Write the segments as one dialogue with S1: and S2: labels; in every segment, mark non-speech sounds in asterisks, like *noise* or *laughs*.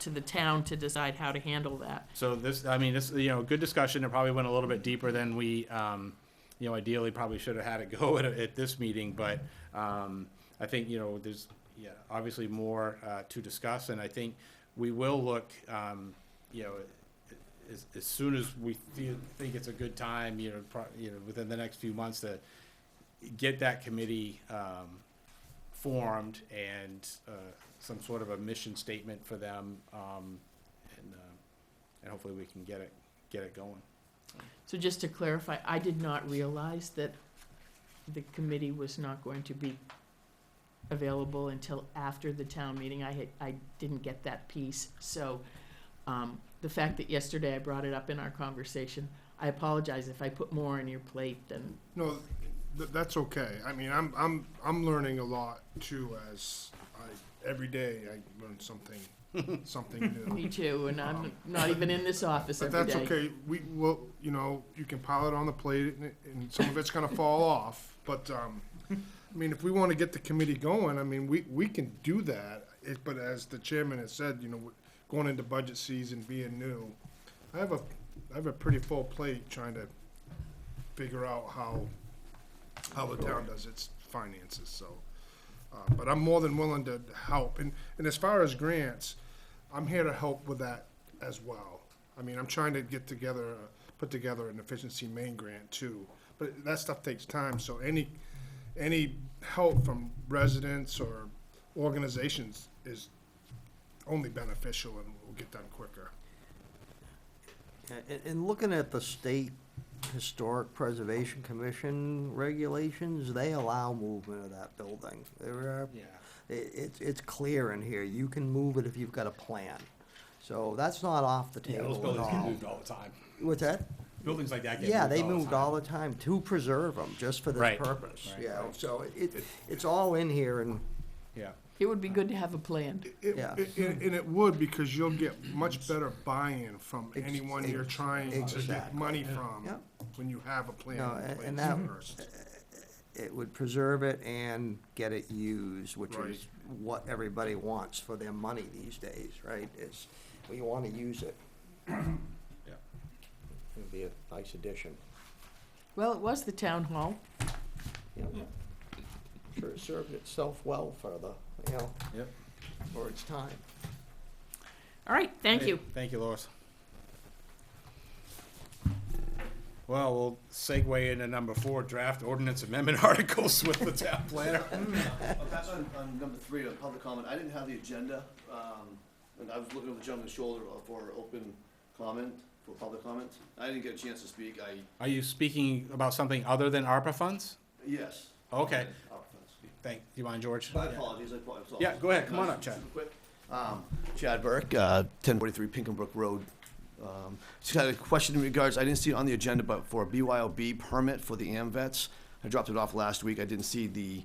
S1: to the town to decide how to handle that.
S2: So this, I mean, this, you know, good discussion. It probably went a little bit deeper than we, um, you know, ideally probably should have had it *laughs* go at, at this meeting, but, um, I think, you know, there's, yeah, obviously more, uh, to discuss, and I think we will look, um, you know, as, as soon as we feel, think it's a good time, you know, pro, you know, within the next few months to get that committee, um, formed and, uh, some sort of a mission statement for them, um, and, uh, and hopefully we can get it, get it going.
S1: So just to clarify, I did not realize that the committee was not going to be available until after the town meeting. I had, I didn't get that piece. So, um, the fact that yesterday I brought it up in our conversation, I apologize if I put more on your plate than,
S3: No, th- that's okay. I mean, I'm, I'm, I'm learning a lot too as I, every day I learn something, something new.
S1: me too, and
S3: *laughs*
S1: I'm not even in this office
S3: But
S1: every day.
S3: that's okay. We will, you know, you can pile it on the plate and, and some of it's gonna fall off. But, um, I mean, if we wanna get the committee going, I mean, we, we can do that. It, but as the chairman has said, you know, we're going into budget season, being new, I have a, I have a pretty full plate trying to figure out how, how the town does its finances, so. Uh, but I'm more than willing to help. And, and as far as grants, I'm here to help with that as well. I mean, I'm trying to get together, uh, put together an efficiency main grant too. But that stuff takes time, so any, any help from residents or organizations is only beneficial and will get done quicker.
S4: And, and looking at the state Historic Preservation Commission regulations, they allow movement of that building. There are,
S2: Yeah.
S4: i- it's, it's clear in here, you can move it if you've got a plan. So that's not off the
S2: Yeah, those
S4: table at
S2: buildings get
S4: all.
S2: moved all the time.
S4: What's that?
S2: Buildings like that get moved
S4: Yeah, they
S2: the
S4: moved
S2: time.
S4: all the time to preserve them, just for this
S2: Right,
S4: purpose,
S2: right,
S4: you know,
S2: right.
S4: so it, it's all in here and,
S2: Yeah.
S1: It would be good to have a plan.
S3: It,
S4: Yeah.
S3: it- and and it would, because you'll get much better buy-in from
S4: Ex-
S3: anyone you're
S4: ex-
S3: trying to get
S4: exactly.
S3: money from
S4: Yep.
S3: when you have a plan
S4: No,
S3: in
S4: and-
S3: place
S4: and that-
S3: first.
S4: it would preserve it and get it used, which
S3: Right.
S4: is what everybody wants for their money these days, right? Is, we want to use it.
S2: Yeah.
S4: It'd be a nice addition.
S1: Well, it was the town hall.
S4: you know. Sure, it served itself well for the, you know,
S2: Yep.
S4: for its time.
S1: All right, thank
S2: Hey,
S1: you.
S2: Thank you, Lois. Well, we'll segue into number four, draft ordinance amendment *laughs* articles with the town planner.
S5: Uh, Back on, on number three, on public comment, I didn't have the agenda, um, and I was looking over Jonathan's shoulder for open comment, for public comment. I didn't get a chance to speak, I,
S2: Are you speaking about something other than ARPA funds?
S5: yes.
S2: Okay.
S5: Oh, thanks.
S2: Thank, do you mind, George?
S5: My apologies, I apologize.
S2: Yeah, go ahead. Come on up, Chad.
S5: Super quick. Um, Chad Burke, uh, ten forty-three Pinkenbrook Road. Um, Just had a question in regards, I didn't see it on the agenda, but for a BYOB permit for the AMVets. I dropped it off last week, I didn't see the,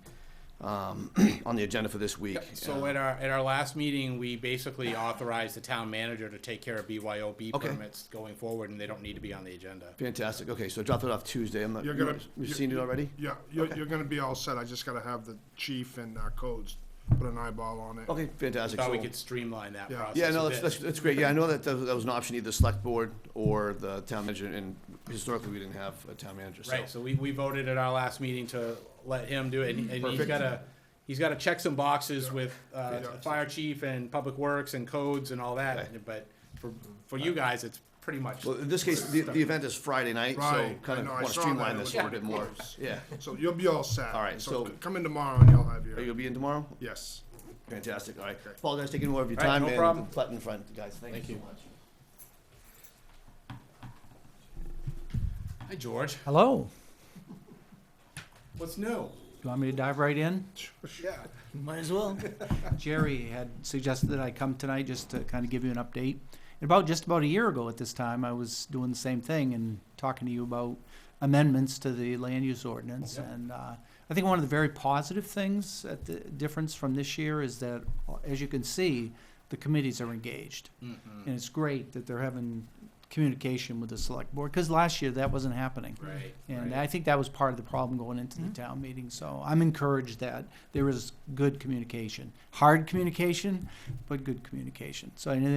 S5: um, *clears throat* on the agenda for this week.
S2: So at our, at our last meeting, we basically authorized the town manager to take care of BYOB
S5: Okay.
S2: permits going forward, and they don't need to be on the agenda.
S5: Fantastic. Okay, so I dropped it off Tuesday. I'm not.
S3: You're gonna.
S5: You've seen it
S3: you-
S5: already?
S3: Yeah, you're,
S5: Okay.
S3: you're gonna be all set, I just gotta have the chief and our codes put an eyeball on it.
S5: Okay, fantastic.
S2: Thought we
S5: So-
S2: could streamline that
S3: Yeah.
S2: process.
S5: Yeah,
S2: a
S5: no, that's,
S2: bit.
S5: that's, that's great. Yeah, I know that, that was- that was an option, either select board or the town manager, and historically, we didn't have a town manager, so.
S2: Right, so we, we voted at our last meeting to let him do it, and and he's
S5: Perfect.
S2: gotta, he's gotta check some boxes with, uh,
S3: Yeah.
S2: fire chief and public works and codes and all that,
S5: Okay.
S2: but for, for you guys, it's pretty much,
S5: Well, in this case, the, the event is Friday night, so
S3: Right, I
S5: kind of
S3: know, I
S5: want to
S3: saw that.
S5: streamline
S3: It
S5: this
S3: was
S5: a little bit
S3: pretty
S5: more.
S3: close.
S5: Yeah.
S3: So you'll be all set.
S5: All right, so-
S3: Come in tomorrow and you'll have
S5: Are you
S3: your,
S5: gonna be in tomorrow?
S3: yes.
S5: Fantastic, all right. Apologize for taking more of your
S2: All right,
S5: time
S2: no problem.
S5: and plating front, guys. Thank
S2: Thank
S5: you
S2: you.
S5: so much.
S2: hi, George,
S6: Hello.
S2: what's new?
S6: You want me to dive right in?
S2: Yeah.
S6: Might as well. *laughs* Jerry had suggested that I come tonight just to kind of give you an update. And about just about a year ago at this time, I was doing the same thing and talking to you about amendments to the land use ordinance.
S2: Yep.
S6: And uh, I think one of the very positive things at the difference from this year is that, uh, as you can see, the committees are engaged. And it's great that they're having communication with the select board, because last year that wasn't happening.
S2: Right,
S6: And
S2: right. Mm-hmm.
S6: I think that was part of the problem going into the town meeting, so I'm encouraged that there is good communication. Hard communication, but good communication. So I know